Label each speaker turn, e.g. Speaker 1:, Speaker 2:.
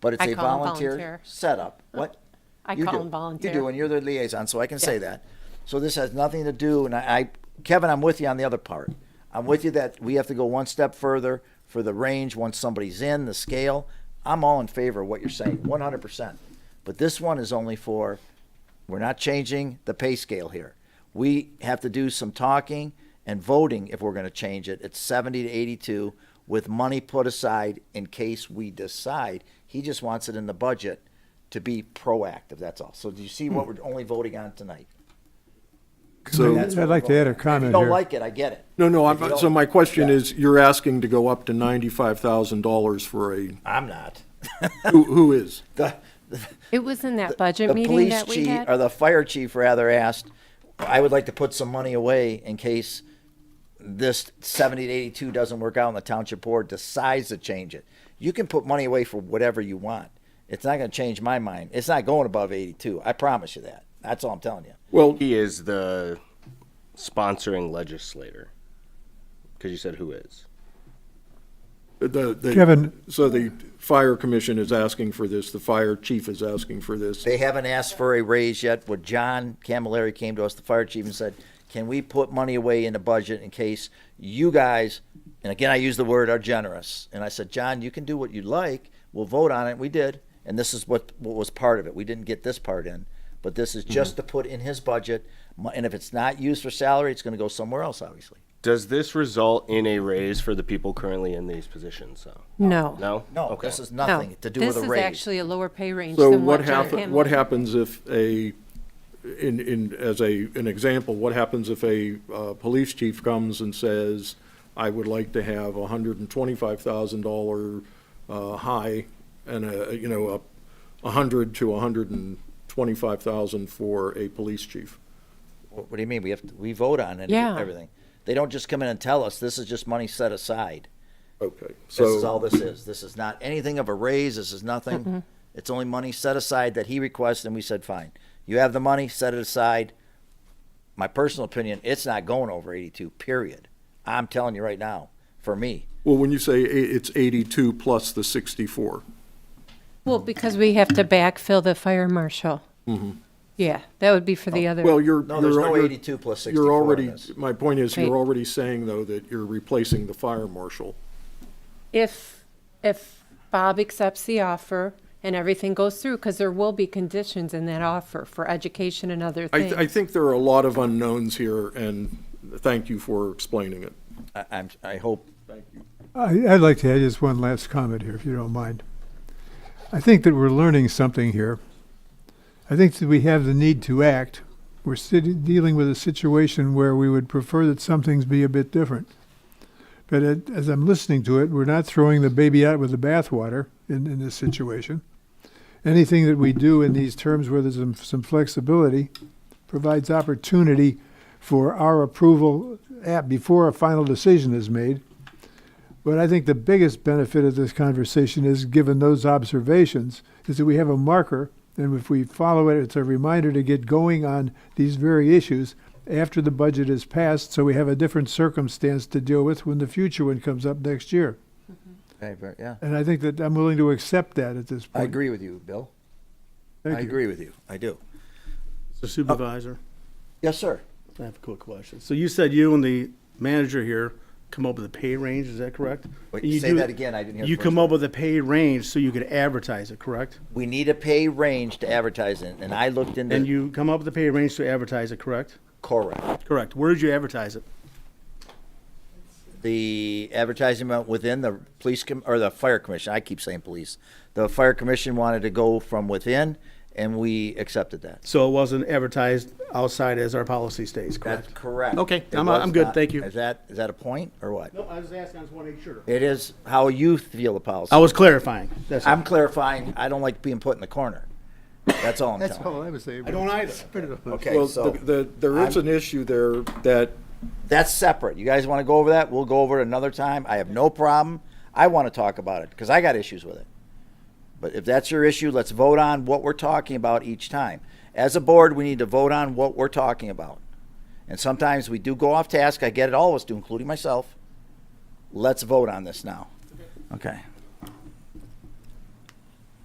Speaker 1: but it's
Speaker 2: I
Speaker 1: a
Speaker 2: call 'em
Speaker 1: volunteer
Speaker 2: volunteer.
Speaker 1: setup. What?
Speaker 2: I
Speaker 1: You
Speaker 2: call
Speaker 1: do.
Speaker 2: 'em volunteer.
Speaker 1: You do, and you're the liaison, so I can say
Speaker 2: Yeah.
Speaker 1: that. So this has nothing to do, and I, I- Kevin, I'm with you on the other part. I'm with you that we have to go one step further for the range, once somebody's in, the scale. I'm all in favor of what you're saying, one hundred percent. But this one is only for, we're not changing the pay scale here. We have to do some talking and voting if we're gonna change it. It's seventy to eighty-two with money put aside in case we decide. He just wants it in the budget to be proactive, that's all. So do you see what we're only voting on tonight?
Speaker 3: So,
Speaker 1: That's what
Speaker 4: I'd like to
Speaker 1: we're
Speaker 4: add
Speaker 1: voting on.
Speaker 4: a
Speaker 1: If you
Speaker 4: comment
Speaker 1: don't
Speaker 4: here.
Speaker 1: like it, I get it.
Speaker 3: no, no,
Speaker 1: If you
Speaker 3: I'm,
Speaker 1: don't-
Speaker 3: so my question
Speaker 1: Yeah.
Speaker 3: is, you're asking to go up to ninety-five thousand dollars for a,
Speaker 1: I'm not.
Speaker 3: who, who is?
Speaker 1: The,
Speaker 2: It was in that
Speaker 1: the
Speaker 2: budget meeting
Speaker 1: police
Speaker 2: that we
Speaker 1: chief, or
Speaker 2: had.
Speaker 1: the fire chief rather asked, I would like to put some money away in case this seventy to eighty-two doesn't work out and the township board decides to change it. You can put money away for whatever you want. It's not gonna change my mind. It's not going above eighty-two. I promise you that. That's all I'm telling you.
Speaker 3: Well,
Speaker 5: He is the sponsoring legislator. Because you said who is.
Speaker 3: the, the.
Speaker 4: Kevin.
Speaker 3: So the fire commission is asking for this, the fire chief is asking for this.
Speaker 1: They haven't asked for a raise yet, but John Camilleri came to us, the fire chief, and said, can we put money away in the budget in case you guys, and again, I use the word are generous. And I said, John, you can do what you like. We'll vote on it. We did. And this is what, what was part of it. We didn't get this part in, but this is just to put in his budget. Mo- And if it's not used for salary, it's going to go somewhere else, obviously.
Speaker 5: Does this result in a raise for the people currently in these positions? though?
Speaker 2: No.
Speaker 5: No?
Speaker 1: No,
Speaker 5: Okay.
Speaker 1: this is
Speaker 2: No.
Speaker 1: nothing to do
Speaker 2: Oh, This
Speaker 1: with a
Speaker 2: is
Speaker 1: raise.
Speaker 2: actually a lower pay range
Speaker 3: So
Speaker 2: than
Speaker 3: what
Speaker 2: what John
Speaker 3: happen, what
Speaker 2: Campbell.
Speaker 3: happens if a, in, in, as a, an example, what happens if a, uh, police chief comes and says, I would like to have a hundred and twenty-five thousand dollar, uh, high and a, you know, a, a hundred to a hundred and twenty-five thousand for a police chief?
Speaker 1: What what do you mean? We have, to- we vote on it,
Speaker 2: Yeah.
Speaker 1: everything. They don't just come in and tell us, this is just money set aside.
Speaker 3: Okay, so.
Speaker 1: This is all this is. This is not anything of a raise. This is nothing. It's only money set aside that he requests, and we said, fine. You have the money, set it aside. My personal opinion, it's not going over 82, period. I'm telling you right now, for me.
Speaker 3: Well, when you say i- it's 82 plus the 64,
Speaker 2: Well, because we have to backfill the fire marshal.
Speaker 1: Mm-hmm.
Speaker 2: Yeah, that would be for
Speaker 1: Oh,
Speaker 2: the other.
Speaker 3: well, you're.
Speaker 1: No, there's
Speaker 3: you're-
Speaker 1: no
Speaker 3: you're-
Speaker 1: 82 plus
Speaker 3: You're
Speaker 1: 64 in
Speaker 3: already,
Speaker 1: this.
Speaker 3: my point is, you're
Speaker 2: Wait.
Speaker 3: already saying, though, that you're replacing the fire marshal.
Speaker 2: If, if Bob accepts the offer and everything goes through, because there will be conditions in that offer for education and other
Speaker 3: I, I
Speaker 2: things.
Speaker 3: think there are a lot of unknowns here, and thank you for explaining it.
Speaker 1: I, I'm, I hope
Speaker 4: I, I'd like to add just one last comment here, if you don't mind. I think that we're learning something here. I think that we have the need to act. We're sit- dealing with a situation where we would prefer that some things be a bit different. But it, as I'm listening to it, we're not throwing the baby out with the bathwater in, in this situation. Anything that we do in these terms where there's some, some flexibility provides opportunity for our approval at, before a final decision is made. But I think the biggest benefit of this conversation is, given those observations, is that we have a marker, and if we follow it, it's a reminder to get going on these very issues after the budget is passed, so we have a different circumstance to deal with when the future one comes up next year.
Speaker 1: Okay, but yeah.
Speaker 4: And I think that I'm willing to accept that at this
Speaker 1: I
Speaker 4: point.
Speaker 1: agree with you, Bill.
Speaker 4: Thank
Speaker 1: I
Speaker 4: you.
Speaker 1: agree with you. I do.
Speaker 6: So supervisor,
Speaker 1: Yes, sir.
Speaker 6: Uh, I have a quick question. So you said you and the manager here come up with a pay range, is that correct?
Speaker 1: Wait,
Speaker 6: And you
Speaker 1: say
Speaker 6: do-
Speaker 1: that again, I didn't hear the
Speaker 6: You
Speaker 1: first
Speaker 6: come
Speaker 1: part.
Speaker 6: up with a pay range so you could advertise it, correct?
Speaker 1: We need a pay range to advertise in, and I looked into
Speaker 6: And you come up with a pay range to advertise it, correct?
Speaker 1: correct.
Speaker 6: Correct. Where did you advertise it?
Speaker 1: The advertising went within the police com- or the fire commission. I keep saying police. The fire commission wanted to go from within, and we accepted that.
Speaker 6: So it wasn't advertised outside as our policy states,
Speaker 1: That's
Speaker 6: correct?
Speaker 1: correct.
Speaker 6: Okay,
Speaker 1: It
Speaker 6: I'm- uh,
Speaker 1: was
Speaker 6: I'm good,
Speaker 1: not-
Speaker 6: thank you.
Speaker 1: Is that, is that a point or what?
Speaker 6: I was asking, I just want to make sure.
Speaker 1: It is how you feel the policy.
Speaker 6: I was clarifying, that's
Speaker 1: I'm
Speaker 6: all.
Speaker 1: clarifying, I don't like being put in the corner. That's all I'm
Speaker 4: That's
Speaker 1: telling. you.
Speaker 4: all I was saying.
Speaker 6: I don't either.
Speaker 1: Okay,
Speaker 3: Well,
Speaker 1: so
Speaker 3: the- the, there is an issue there that,
Speaker 1: that's separate. You guys want to go over that? We'll go over it another time. I have no problem. I want to talk about it because I got issues with it. But if that's your issue, let's vote on what we're talking about each time. As a board, we need to vote on what we're talking about. And sometimes we do go off task. I get it, all of us do, including myself. Let's vote on this now. Okay.